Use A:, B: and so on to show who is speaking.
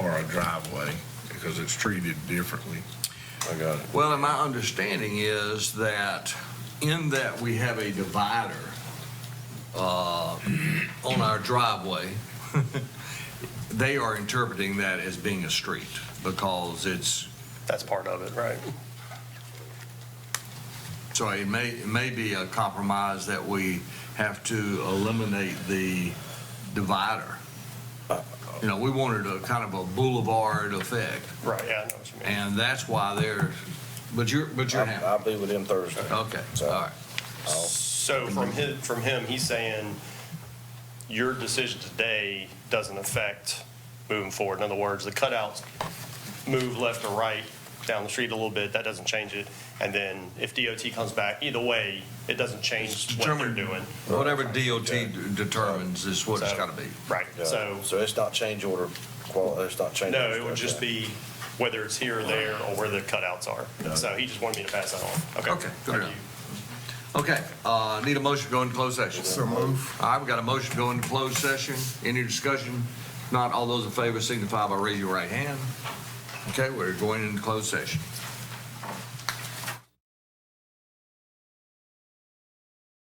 A: driveway because it's treated differently.
B: I got it.
C: Well, and my understanding is that in that we have a divider uh, on our driveway, they are interpreting that as being a street because it's,
D: That's part of it, right?
C: so it may, it may be a compromise that we have to eliminate the divider.
B: Uh,
C: You know, we wanted a kind of a boulevard effect,
D: Right, yeah, I know what you mean.
C: and that's why they're, but you're, but you're
B: I'll
C: happy.
B: I'll be with him Thursday.
C: Okay, all right.
D: So from him, from him, he's saying your decision today doesn't affect moving forward. In other words, the cutouts move left or right down the street a little bit, that doesn't change it. And then if DOT comes back, either way, it doesn't change what they're
C: Determine-
D: doing.
C: Whatever DOT d- determines is what it's
D: So-
C: gotta be.
D: Right,
B: Yeah.
D: so,
B: So it's not change order, qual, it's not change.
D: no,
B: order
D: it would
B: stuff, yeah.
D: just be whether it's here or there or where the cutouts are. So he just wanted me to pass that on. Okay.
C: Okay, good
D: Thank
C: enough.
D: you.
C: Okay, uh, need a motion to go into closed session. So move. All right, we got a motion to go into closed session. Any discussion? Not all those in favor signify by raising your right hand. Okay, we're going into closed session.